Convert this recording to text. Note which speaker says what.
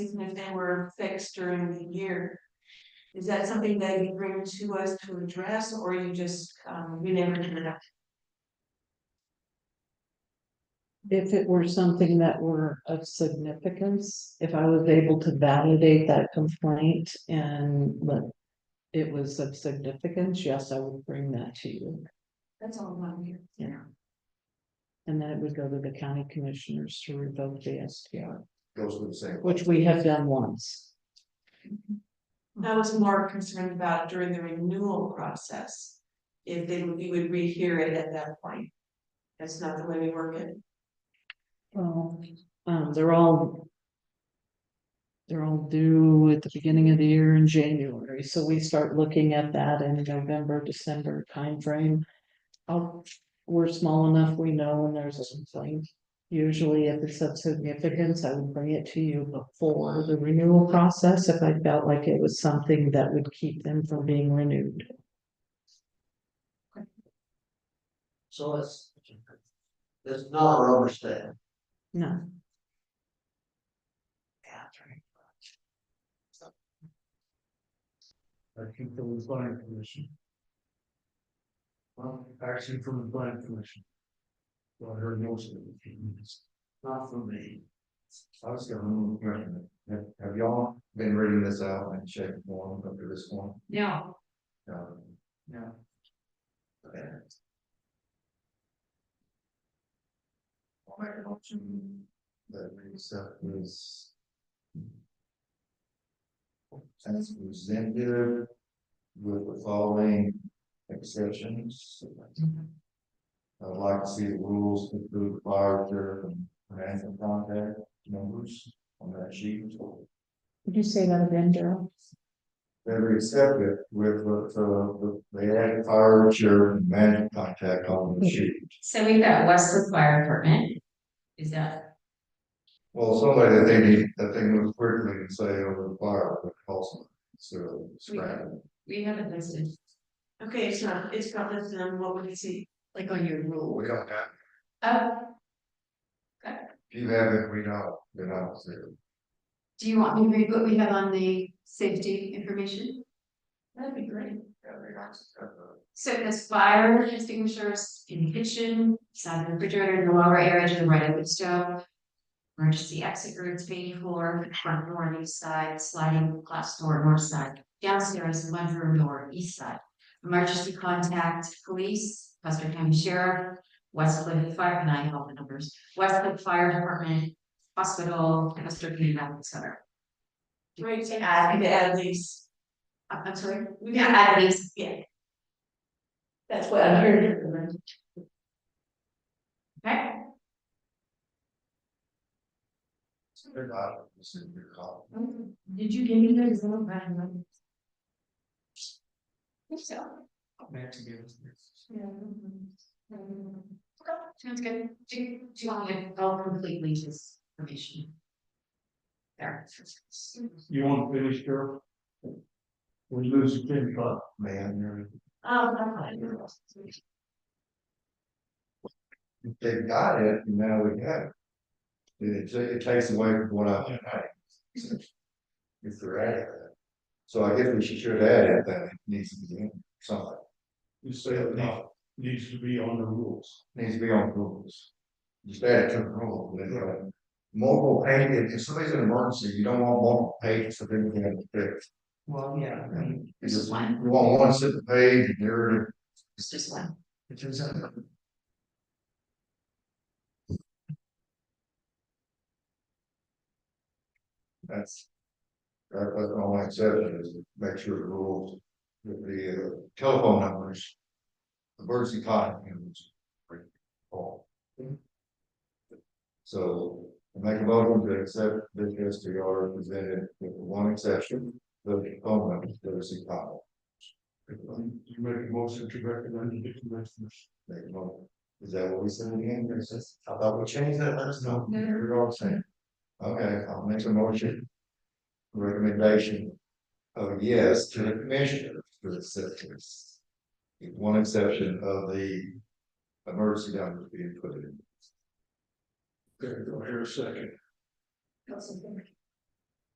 Speaker 1: even if they were fixed during the year. Is that something that you bring to us to address, or you just, um, you never do that?
Speaker 2: If it were something that were of significance, if I was able to validate that complaint and let. It was of significance, yes, I would bring that to you,
Speaker 1: That's all I'm here.
Speaker 2: Yeah. and then it would go to the county commissioners to revoke the STR,
Speaker 3: goes to the same.
Speaker 2: which we have done once.
Speaker 1: I was more concerned about during the renewal process. If they, would- you would rehear it at that point. That's not the way we work it.
Speaker 2: Well, um, they're all. They're all due at the beginning of the year in January, so we start looking at that in November, December timeframe. I'll- we're small enough, we know when there's a complaint. Usually if it's of significance, I would bring it to you before the renewal process if I felt like it was something that would keep them from being renewed.
Speaker 3: So it's. It's not a rubber stamp.
Speaker 2: No.
Speaker 3: Actually from the planning commission. Well, actually from the planning commission. Well, I heard most of it, not from me. I was gonna move, right, have, have y'all been reading this out and checking one up to this one?
Speaker 1: No.
Speaker 3: No. No. Okay. I'll make a motion that we accept this. As presented with the following exceptions. I'd like to see the rules include fire, reserve, and ransom contact numbers on that sheet.
Speaker 2: Did you say that again, Daryl?
Speaker 3: They were accepted with, with, uh, they had fire chair and management contact on the sheet.
Speaker 4: So we've got Westwood Fire Department. Is that,
Speaker 3: Well, somebody that they need, that they move quickly and say over the fire, but also, so, scrap.
Speaker 4: we have it listed,
Speaker 1: Okay, it's not, it's not listed on what we can see.
Speaker 4: like on your rule.
Speaker 3: We don't have,
Speaker 4: Oh,
Speaker 3: if you have it, we know, then I'll say,
Speaker 4: do you want me to read what we have on the safety information?
Speaker 1: That'd be great.
Speaker 3: yeah, we got to.
Speaker 4: So there's fire extinguishers in the kitchen, side of the refrigerator, in the lower area to the right of the stove. Emergency exit routes, main floor, front door on each side, sliding glass door north side, downstairs, one room door east side. Emergency contact, police, Custer County Sheriff, Westwood Fire, and I have all the numbers, Westwood Fire Department, hospital, Custer County Medical Center.
Speaker 1: Right, to add, to add these.
Speaker 4: Uh, I'm I'm sorry,
Speaker 1: We
Speaker 4: we can add these
Speaker 1: Yeah. That's what I'm hearing.
Speaker 4: Okay,
Speaker 3: They're not, it's in your call.
Speaker 4: did you give me those little brown ones? so.
Speaker 3: Meant to give us this.
Speaker 4: Yeah.
Speaker 1: Mm-hmm.
Speaker 4: Okay, sounds good. Do, do you want me to go completely just permission? There.
Speaker 3: You want to finish, Carol? We lose the ten five. Man, you're.
Speaker 4: oh,
Speaker 1: Um, I'm fine.
Speaker 3: If They've got it, and now we have it. It, ta- it takes away from what I had. If they're adding that. So I guess we should should add it, that it needs to be in something. You say it needs, to be on the rules. Needs to be on rules. Just add it to the rule, then, uh, mobile paint, if if somebody's in an emergency, you don't want mobile paint, so then you have to fix. Oh,
Speaker 4: Well, yeah.
Speaker 3: You
Speaker 4: This is one,
Speaker 3: just- you want one set of page, and you're.
Speaker 4: it's just one.
Speaker 3: It turns out. That's. That, that's all I said is make sure the rules, that the uh, telephone numbers. Emergency contact numbers. are all. So I make a motion to accept this S T R presented with one exception, the phone numbers, emergency contact. You make a motion to recommend the commissioners. Make a motion. Is that what we said again? There's this, I thought we changed that, let us know.
Speaker 4: No.
Speaker 3: We're all saying. Okay, I'll make a motion. Recommendation of yes to the commissioners for the sisters. With one exception of the emergency numbers being put in. There, go here a second.
Speaker 4: That's okay.